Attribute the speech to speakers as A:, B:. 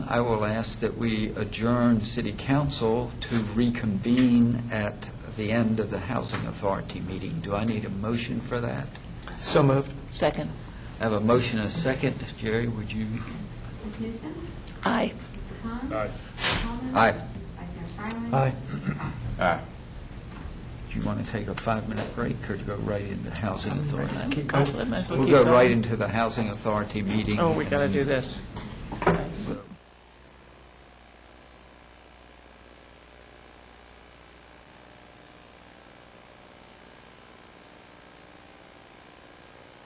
A: I will ask that we adjourn city council to reconvene at the end of the housing authority meeting. Do I need a motion for that?
B: So moved.
C: Second.
A: I have a motion and a second. Jerry, would you?
D: Ms. Newton?
C: Aye.
D: Hahn? Aye. Coleman?
A: Aye.
D: Vice Mayor Fryland?
B: Aye.
A: Do you want to take a five-minute break or to go right into housing authority?
C: Keep going. Might as well
A: We'll
C: keep
A: go
C: going.
A: right into the housing authority meeting.
C: Oh, we got to do this.
A: And